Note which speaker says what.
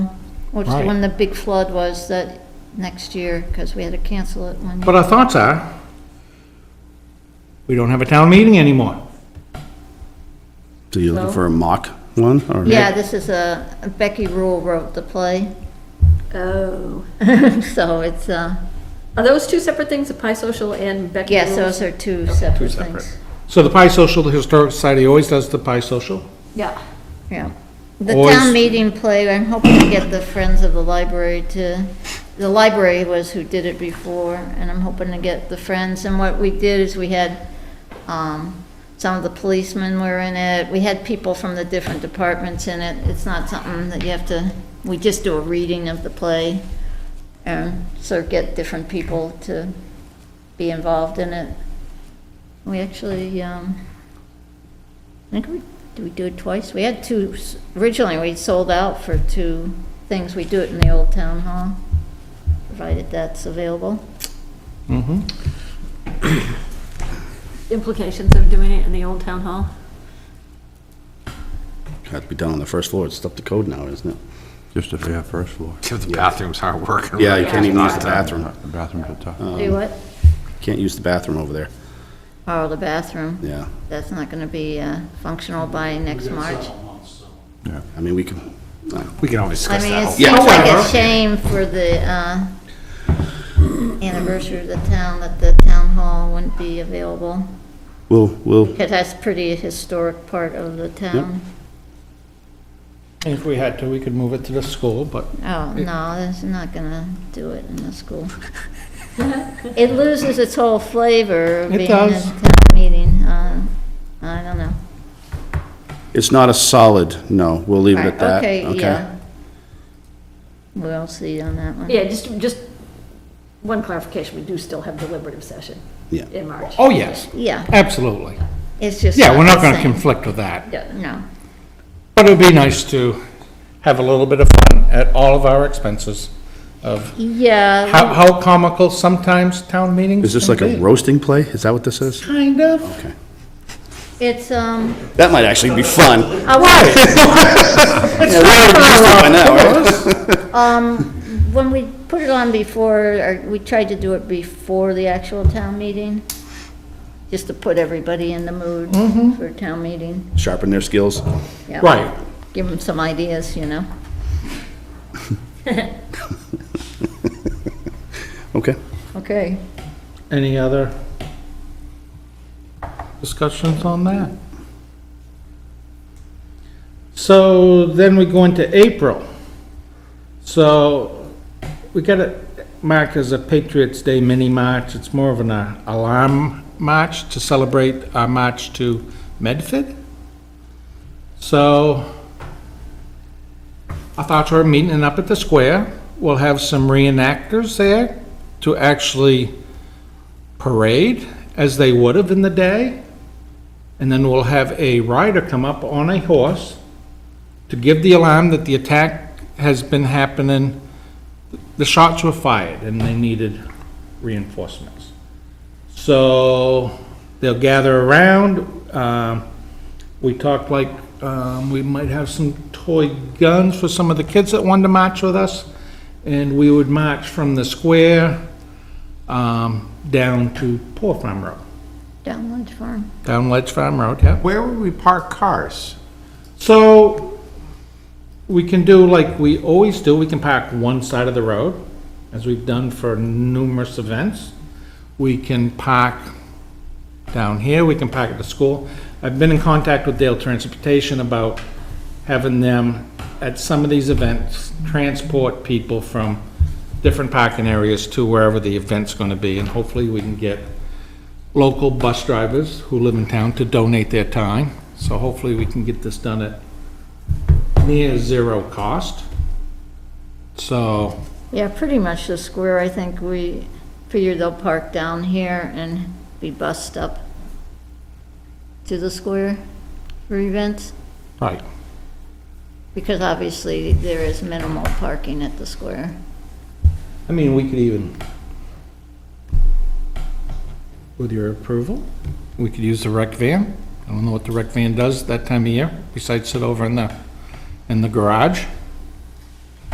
Speaker 1: Which the
Speaker 2: Right.
Speaker 1: one the big flood was that next year, because we had to cancel it one
Speaker 2: But
Speaker 1: year.
Speaker 2: our thoughts are, we don't have a town meeting anymore.
Speaker 3: So you're
Speaker 1: So?
Speaker 3: looking for a mock one? or-
Speaker 1: Yeah, this is a, Becky Rule wrote the play,
Speaker 4: Oh,
Speaker 1: so it's, uh,
Speaker 4: are those two separate things, the Pi Social and Becky
Speaker 1: yes,
Speaker 4: Rules?
Speaker 1: those are two separate
Speaker 3: separate.
Speaker 1: things.
Speaker 2: So the Pi Social, the Historic Society always does the Pi Social.
Speaker 4: Yeah.
Speaker 1: Yeah. The
Speaker 2: Or
Speaker 1: town
Speaker 2: is-
Speaker 1: meeting play, I'm hoping to get the Friends of the Library to, the library was who did it before, and I'm hoping to get the Friends, and what we did is we had, um, some of the policemen were in it, we had people from the different departments in it, it's not something that you have to, we just do a reading of the play, and sort of get different people to be involved in it. We actually, um, I think we, do we do it twice? We had two, s- originally we sold out for two things. We do it in the old town hall, provided that's available.
Speaker 4: Implications of doing it in the old town hall?
Speaker 3: Had to be done on the first floor, it's up to code now, isn't it?
Speaker 5: Just if they have first floor.
Speaker 6: If the bathrooms aren't working.
Speaker 3: Yeah, you can't even use the bathroom,
Speaker 5: The bathrooms are tough.
Speaker 6: Um,
Speaker 1: Do what?
Speaker 3: can't use the bathroom over there,
Speaker 1: Oh, the bathroom.
Speaker 3: yeah.
Speaker 1: That's not gonna be uh, functional by next March.
Speaker 3: I mean, we can, uh,
Speaker 6: We can always
Speaker 1: I
Speaker 6: discuss
Speaker 1: mean, it
Speaker 6: that.
Speaker 1: seems like a shame for the uh, anniversary of the town that the town hall wouldn't be available.
Speaker 3: we'll, we'll,
Speaker 1: Because that's pretty historic part of the town.
Speaker 2: And if we had to, we could move it to the school, but
Speaker 1: Oh, no, that's not gonna do it in the school. It loses its whole flavor of
Speaker 2: It
Speaker 1: being a
Speaker 2: does.
Speaker 1: town meeting, uh, I don't know.
Speaker 3: it's not a solid, no, we'll leave it at that,
Speaker 1: Okay,
Speaker 3: okay?
Speaker 1: yeah. We'll see on that one.
Speaker 4: Yeah, just, just one clarification, we do still have deliberative session
Speaker 3: Yeah.
Speaker 4: in March.
Speaker 2: Oh, yes,
Speaker 1: Yeah,
Speaker 2: absolutely.
Speaker 1: it's just.
Speaker 2: Yeah, we're not
Speaker 1: the
Speaker 2: going to
Speaker 1: same.
Speaker 2: conflict with that.
Speaker 4: Yeah.
Speaker 1: No,
Speaker 2: But it would be nice to have a little bit of fun at all of our expenses of how,
Speaker 1: yeah,
Speaker 2: how comical sometimes town meetings
Speaker 3: Is this
Speaker 2: can
Speaker 3: like a
Speaker 2: be.
Speaker 3: roasting play, is that what this is?
Speaker 2: Kind of.
Speaker 3: Okay.
Speaker 1: it's, um,
Speaker 3: That might actually be fun.
Speaker 1: I was,
Speaker 3: Yeah, we're already used to it by now, right?
Speaker 1: when we put it on before, or we tried to do it before the actual town meeting, just to put everybody in the mood
Speaker 2: Mm-hmm.
Speaker 1: for a town meeting.
Speaker 3: Sharpen their skills.
Speaker 1: Yeah.
Speaker 2: Right.
Speaker 1: Give them some ideas, you know?
Speaker 3: Okay.
Speaker 1: Okay.
Speaker 2: Any other discussions on that? So then we go into April. So we got it marked as a Patriots Day mini march. It's more of an uh, alarm march to celebrate our march to Medford. So I thought we were meeting up at the square. We'll have some reenactors there to actually parade as they would have in the day. And then we'll have a rider come up on a horse to give the alarm that the attack has been happening. The shots were fired and they needed reinforcements. So they'll gather around. Um, we talked like um, we might have some toy guns for some of the kids that wanted to march with us. And we would march from the square um, down to Poor Farm Road,
Speaker 1: Down Lodge Farm.
Speaker 2: down Ledge Farm Road, yeah.
Speaker 6: Where would we park cars?
Speaker 2: So we can do like we always do, we can park one side of the road, as we've done for numerous events. We can park down here, we can park at the school. I've been in contact with Dale Transportation about having them, at some of these events, transport people from different parking areas to wherever the event's gonna be, and hopefully we can get local bus drivers who live in town to donate their time. So hopefully we can get this done at near zero cost. So,
Speaker 1: Yeah, pretty much the square, I think we figure they'll park down here and be bussed up to the square for events,
Speaker 2: right,
Speaker 1: because obviously there is minimal parking at the square.
Speaker 2: I mean, we could even, with your approval, we could use the rec van. I don't know what the rec van does that time of year, besides sit over in the, in the garage.